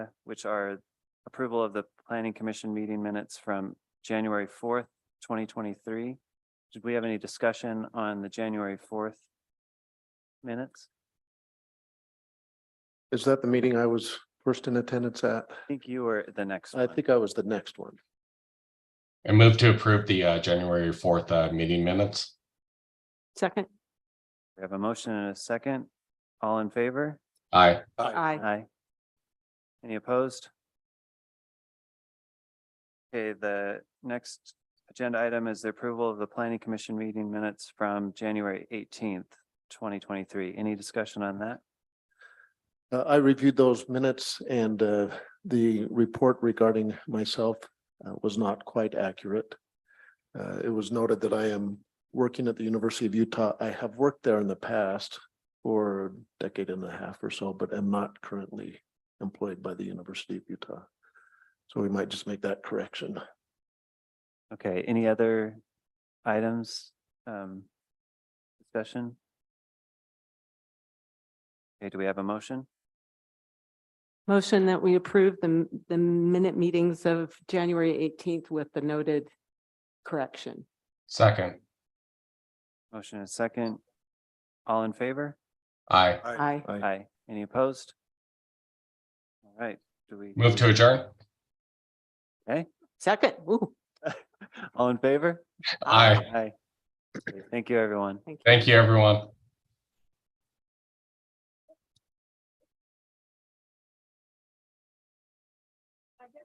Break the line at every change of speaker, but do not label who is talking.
which are approval of the planning commission meeting minutes from January fourth, twenty twenty-three. Did we have any discussion on the January fourth minutes?
Is that the meeting I was first in attendance at?
I think you were the next
I
one.
think I was the next one.
I move to approve the uh, January fourth uh, meeting minutes.
Second,
We have a motion and a second. All in favor?
Aye.
aye.
Aye. Any opposed? Okay, the next agenda item is the approval of the planning commission meeting minutes from January eighteenth, twenty twenty-three. Any discussion on that?
Uh, I reviewed those minutes and uh, the report regarding myself uh, was not quite accurate. Uh, It was noted that I am working at the University of Utah. I have worked there in the past for a decade and a half or so, but am not currently employed by the University of Utah. So we might just make that correction.
Okay, any other items? um, Discussion? Okay, do we have a motion?
Motion that we approve the, m- the minute meetings of January eighteenth with the noted correction.
Second.
Motion and second. All in favor?
Aye.
Aye.
Aye.
Aye. Any opposed? All right, do we?
Move to adjourn.
Second, Woo.
All in favor?
Aye.
Aye. Thank you, everyone.
Thank you, everyone.